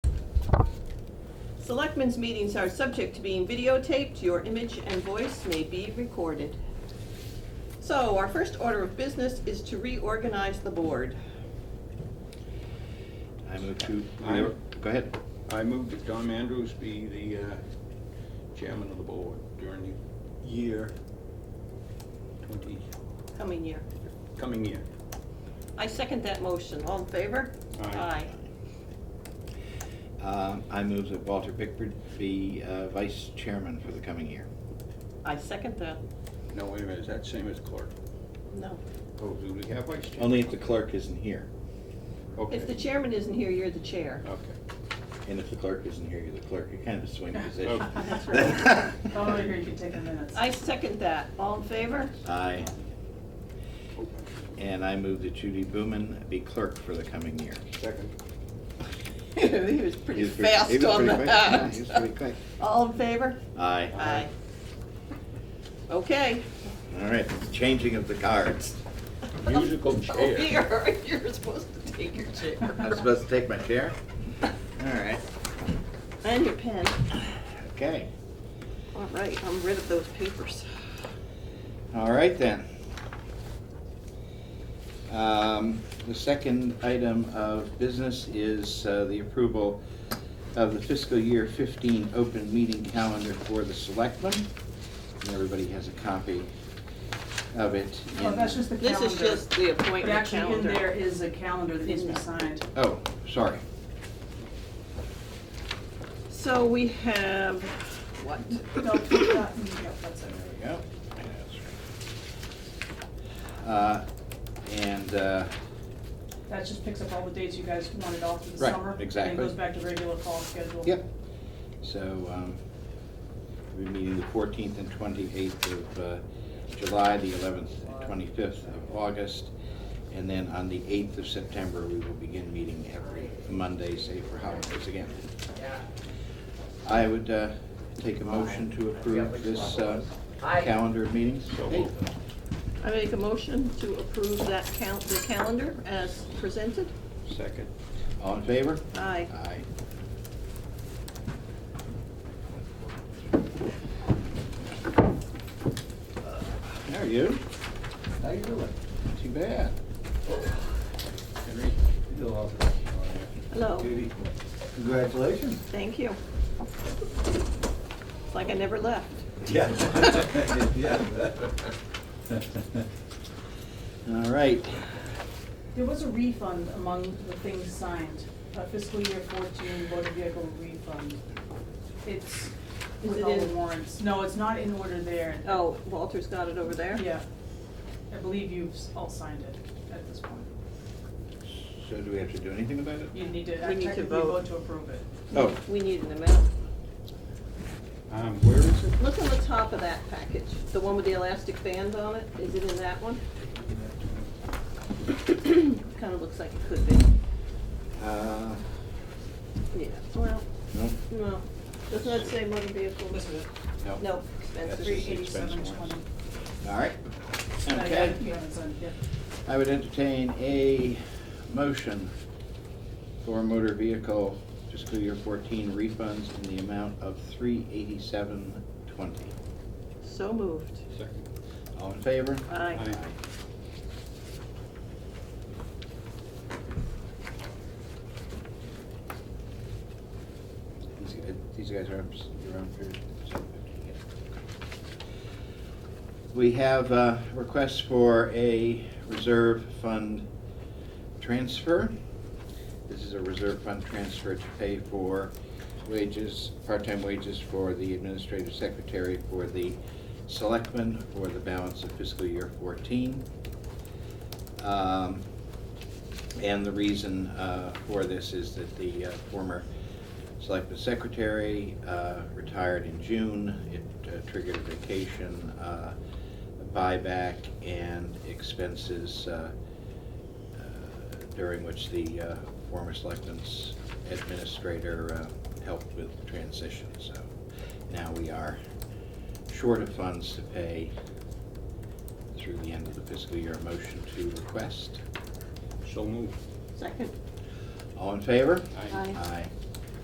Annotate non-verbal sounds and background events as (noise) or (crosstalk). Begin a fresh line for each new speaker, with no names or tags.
Selectmen's meetings are subject to being videotaped. Your image and voice may be recorded. So our first order of business is to reorganize the board.
I move to,
I-
go ahead.
I move that Tom Andrews be the uh, chairman of the board during the year twenty,
Coming year.
coming year.
I second that motion. All in favor?
Aye.
Um, I move that Walter Bickford be uh, vice chairman for the coming year.
I second that.
No, wait a minute, is that same as clerk?
No.
Oh, do we have vice chair?
Only if the clerk isn't here.
Okay,
If the chairman isn't here, you're the chair.
okay.
And if the clerk isn't here, you're the clerk. You're kind of a swing position.
Okay.
That's right.
(laughs)
Totally agree, you can take the minutes.
I second that. All in favor? (laughs)
Aye.
Oh,
And I move that Judy Booman be clerk for the coming year.
Second.
(laughs) He was pretty
He was pretty- he
fast
was
on
pretty quick. Yeah,
that.
he was pretty quick.
(laughs) All in favor?
Aye.
Aye. Okay.
All right, changing of the cards.
Musical
Oh,
chair.
here, (laughs) you're supposed to take your
I'm
chair.
supposed to take my chair? All right,
And your pen.
okay.
All right, I'm rid of those papers.
All right then. Um, The second item of business is uh, the approval of the fiscal year 15 open meeting calendar for the selectmen. And everybody has a copy of it.
Well,
in-
Oh, that's just the
This
calendar.
is just the
But
appointment
actually, in there
calendar.
is a calendar that needs to be signed.
Oh, sorry.
So we have, what?
No, that- (coughs) yep, that's it.
There we go. Uh, And uh,
That just picks up all the dates you guys wanted off for the
Right,
summer.
exactly.
And goes back to regular fall schedule.
Yep. So, um, we're meeting the fourteenth and twenty-eighth of, uh, July, the eleventh and twenty-fifth of August. And then on the eighth of September, we will begin meeting every Monday, save for holidays again. I would, uh, take a motion to approve this, uh, calendar of meetings. Hey,
I make a motion to approve that cal, the calendar as presented.
(laughs)
Second.
All in favor?
Aye.
Aye. How are you?
How you doing?
Too bad.
Henry?
Doing all
Hello,
Judy?
Congratulations.
thank you. It's like I never left.
Yeah.
All right.
There was a refund among the things signed, a fiscal year fourteen motor vehicle refund. It's
Is
with
it
all the
in-
warrants. No, it's not in order there.
(laughs) Oh, Walter's got it over there?
Yeah. I believe you've s- all signed it at this point.
So do we have to do anything about it?
You need to,
We need to
technically
vote.
vote to approve it.
Oh,
We need an amount.
Um, where is it?
Look on the top of that package, the one with the elastic band on it, is it in that one? (coughs) Kinda looks like it could be,
uh,
yeah, well,
no,
no, does not say motor vehicle.
no.
No, expenses.
That's just
Three
expense
eighty-seven
warrants.
twenty.
All right. Okay.
You haven't signed it yet.
I would entertain a motion for motor vehicle fiscal year fourteen refunds in the amount of three eighty-seven twenty.
So moved,
Second.
All in favor?
aye.
Aye.
These guys, these guys are up s- around here. so- We have uh requests for a reserve fund transfer. This is a reserve fund transfer to pay for wages, part-time wages for the administrative secretary for the selectmen for the balance of fiscal year fourteen. Um, and the reason uh, for this is that the uh, former selectman secretary uh, retired in June. It uh, triggered a vacation uh, buyback and expenses uh, uh, during which the uh, former selectman's administrator uh, helped with the transition. So now we are short of funds to pay through the end of the fiscal year. Motion to request.
So moved.
Second,
All in favor?
Aye.
Aye.
Aye.